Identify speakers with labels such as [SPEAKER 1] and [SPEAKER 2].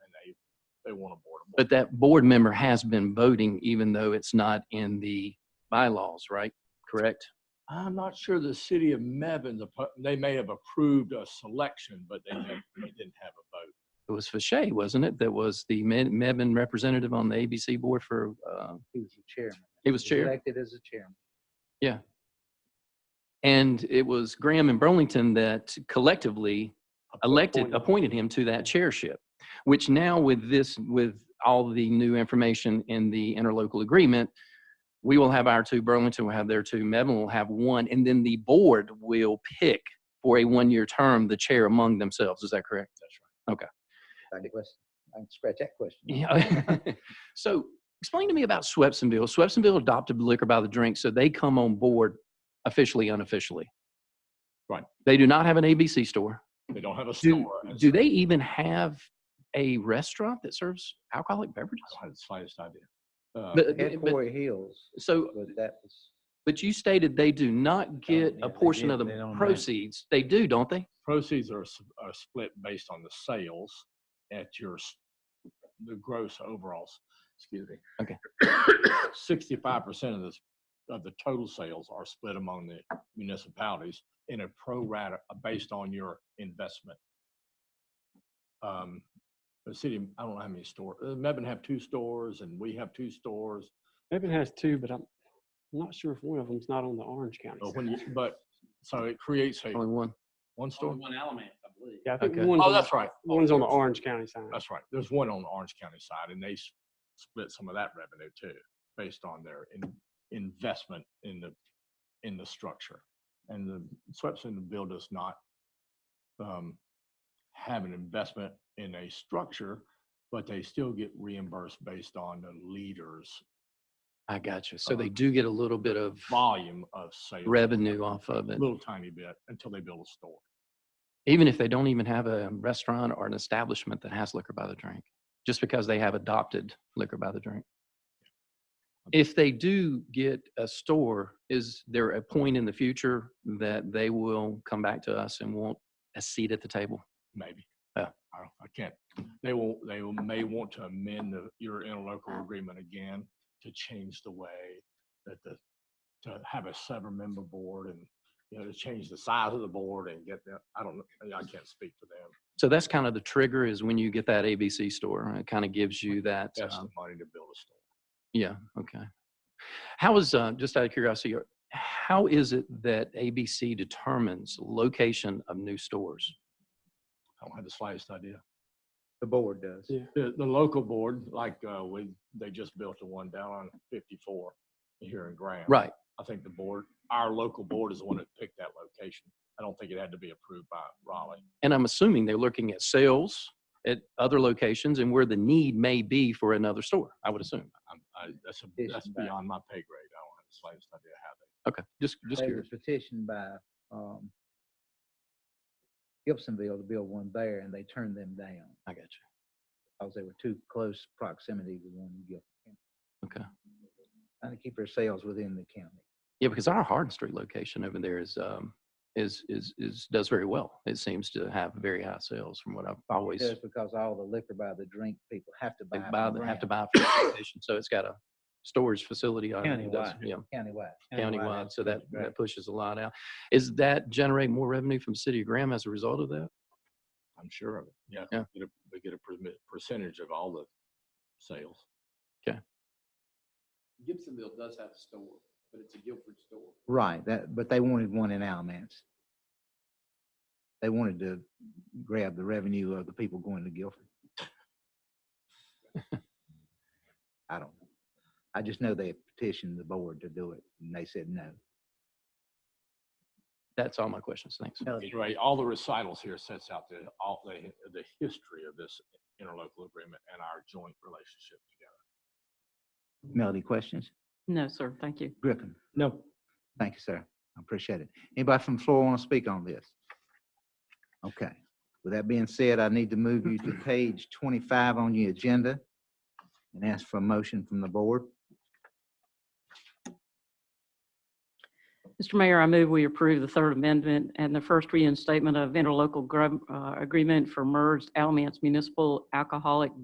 [SPEAKER 1] they want a board.
[SPEAKER 2] But that board member has been voting even though it's not in the bylaws, right? Correct?
[SPEAKER 1] I'm not sure the city of Mebane, the pu- they may have approved a selection, but they didn't they didn't have a vote.
[SPEAKER 2] It was Fache, wasn't it? That was the Me- Mebane representative on the ABC board for, uh,
[SPEAKER 3] He was the chairman.
[SPEAKER 2] he was chair.
[SPEAKER 3] Elected as a chairman.
[SPEAKER 2] And it was Graham and Burlington that collectively elected,
[SPEAKER 1] Appointed.
[SPEAKER 2] appointed him to that chairship, which now with this, with all the new information in the interlocal agreement, we will have our two, Burlington will have their two, Mebane will have one, and then the board will pick for a one-year term, the chair among themselves. Is that correct?
[SPEAKER 3] Back to question. I can scratch that question.
[SPEAKER 2] Yeah. so explain to me about Swepsonville. Swepsonville adopted liquor by the drink, so they come on board officially, unofficially.
[SPEAKER 1] Right.
[SPEAKER 2] They do not have an ABC store.
[SPEAKER 1] They don't have a
[SPEAKER 2] Do,
[SPEAKER 1] store. as
[SPEAKER 2] do
[SPEAKER 1] such.
[SPEAKER 2] they even have a restaurant that serves alcoholic beverages?
[SPEAKER 1] I don't have the slightest idea. Uh,
[SPEAKER 2] But-
[SPEAKER 3] Had
[SPEAKER 2] but-
[SPEAKER 3] Corey Hills,
[SPEAKER 2] so,
[SPEAKER 3] but that was,
[SPEAKER 2] but you stated they do not get
[SPEAKER 3] yeah,
[SPEAKER 2] a
[SPEAKER 3] they
[SPEAKER 2] portion
[SPEAKER 3] did.
[SPEAKER 2] of
[SPEAKER 3] They don't
[SPEAKER 2] the
[SPEAKER 3] have-
[SPEAKER 2] proceeds. They do, don't they?
[SPEAKER 1] Proceeds are, s- are split based on the sales at your, s- the gross overalls, excuse me.
[SPEAKER 2] Okay.
[SPEAKER 1] Sixty-five percent of this, of the total sales are split among the municipalities in a pro rata, uh, based on your investment. Um, The city, I don't know how many stores, Mebane have two stores and we have two stores,
[SPEAKER 4] Maybe it has two, but I'm not sure if one of them's not on the Orange County.
[SPEAKER 1] but
[SPEAKER 4] side.
[SPEAKER 1] Oh, when you, but, so it creates a,
[SPEAKER 2] Only one.
[SPEAKER 1] one store?
[SPEAKER 4] Yeah, I think
[SPEAKER 2] Okay.
[SPEAKER 4] one's,
[SPEAKER 1] Oh,
[SPEAKER 4] on,
[SPEAKER 1] that's right.
[SPEAKER 4] one's on the Orange County side.
[SPEAKER 1] That's right. There's one on the Orange County side, and they s- split some of that revenue too, based on their in- investment in the, in the structure. And the Swepson bill does not um, have an investment in a structure, but they still get reimbursed based on the leader's
[SPEAKER 2] I got you. So
[SPEAKER 1] Uh-huh.
[SPEAKER 2] they do get a little bit of
[SPEAKER 1] volume of sales.
[SPEAKER 2] revenue off of it.
[SPEAKER 1] Little tiny bit until they build a store.
[SPEAKER 2] even if they don't even have a restaurant or an establishment that has liquor by the drink, just because they have adopted liquor by the drink. If they do get a store, is there a point in the future that they will come back to us and want a seat at the table?
[SPEAKER 1] maybe. I,
[SPEAKER 2] Yeah.
[SPEAKER 1] don't- I can't. They will, they will, may want to amend the, your
[SPEAKER 2] Uh-huh.
[SPEAKER 1] interlocal agreement again to change the way that the, to have a seven-member board and, you know, to change the size of the board and get that, I don't, know. I can't speak for them.
[SPEAKER 2] So that's kind of the trigger is when you get that ABC store. It kind of gives you that.
[SPEAKER 1] That's
[SPEAKER 2] um,
[SPEAKER 1] the money to build a store.
[SPEAKER 2] Yeah, okay. How is, uh, just out of curiosity, are- how is it that ABC determines location of new stores?
[SPEAKER 1] I don't have the slightest idea.
[SPEAKER 3] the board does.
[SPEAKER 4] Yeah.
[SPEAKER 1] The, the local board, like, uh, we, they just built the one down on fifty-four here in Graham.
[SPEAKER 2] Right.
[SPEAKER 1] I think the board, our local board is the one that picked that location. I don't think it had to be approved by Raleigh.
[SPEAKER 2] And I'm assuming they're looking at sales at other locations and where the need may be for another store, I would assume.
[SPEAKER 1] I'm, I, that's, a,
[SPEAKER 3] Petition
[SPEAKER 1] that's
[SPEAKER 3] back.
[SPEAKER 1] beyond my pay grade. I don't have the slightest idea how they.
[SPEAKER 2] Okay, just, just
[SPEAKER 3] There was
[SPEAKER 2] curious.
[SPEAKER 3] a petition by, um, Gibsonville to build one there and they turned them down
[SPEAKER 2] I got you.
[SPEAKER 3] because they were too close proximity to one in Gibson. County.
[SPEAKER 2] Okay.
[SPEAKER 3] Trying to keep their sales within the county.
[SPEAKER 2] Yeah, because our Hardin Street location over there is, um, is, is, is, does very well. It seems to have very high sales from what I've always,
[SPEAKER 3] Just because all the liquor by the drink people have to buy.
[SPEAKER 2] they
[SPEAKER 3] from
[SPEAKER 2] buy,
[SPEAKER 3] the
[SPEAKER 2] they have to
[SPEAKER 3] brand
[SPEAKER 2] buy. from the location. So it's got a storage facility. on it, does-
[SPEAKER 3] Countywide.
[SPEAKER 2] Yeah,
[SPEAKER 3] Countywide.
[SPEAKER 2] countywide. So that,
[SPEAKER 3] Right.
[SPEAKER 2] that pushes a lot out. Is that generate more revenue from City of Graham as a result of that?
[SPEAKER 1] I'm sure of it. Yeah.
[SPEAKER 2] Yeah.
[SPEAKER 1] We get a, we get a permi- percentage of all the sales.
[SPEAKER 5] Gibsonville does have a store, but it's a Guilford store.
[SPEAKER 3] Right, that, but they wanted one in Alamance. They wanted to grab the revenue of the people going to Guilford. I don't know. I just know they petitioned the board to do it and they said no.
[SPEAKER 2] That's all my questions. Thanks.
[SPEAKER 1] Anyway, all the recitals here sets out the, all the, the history of this interlocal agreement and our joint relationship together.
[SPEAKER 3] Melody, questions?
[SPEAKER 6] No, sir, thank you.
[SPEAKER 3] Griffin,
[SPEAKER 4] No.
[SPEAKER 3] thank you, sir. I appreciate it. Anybody from the floor want to speak on this? Okay. With that being said, I need to move you to page twenty-five on your agenda and ask for a motion from the board.
[SPEAKER 6] Mr. Mayor, I move we approve the third amendment and the first reinstatement of interlocal grum- uh, agreement for merged Alamance Municipal Alcoholic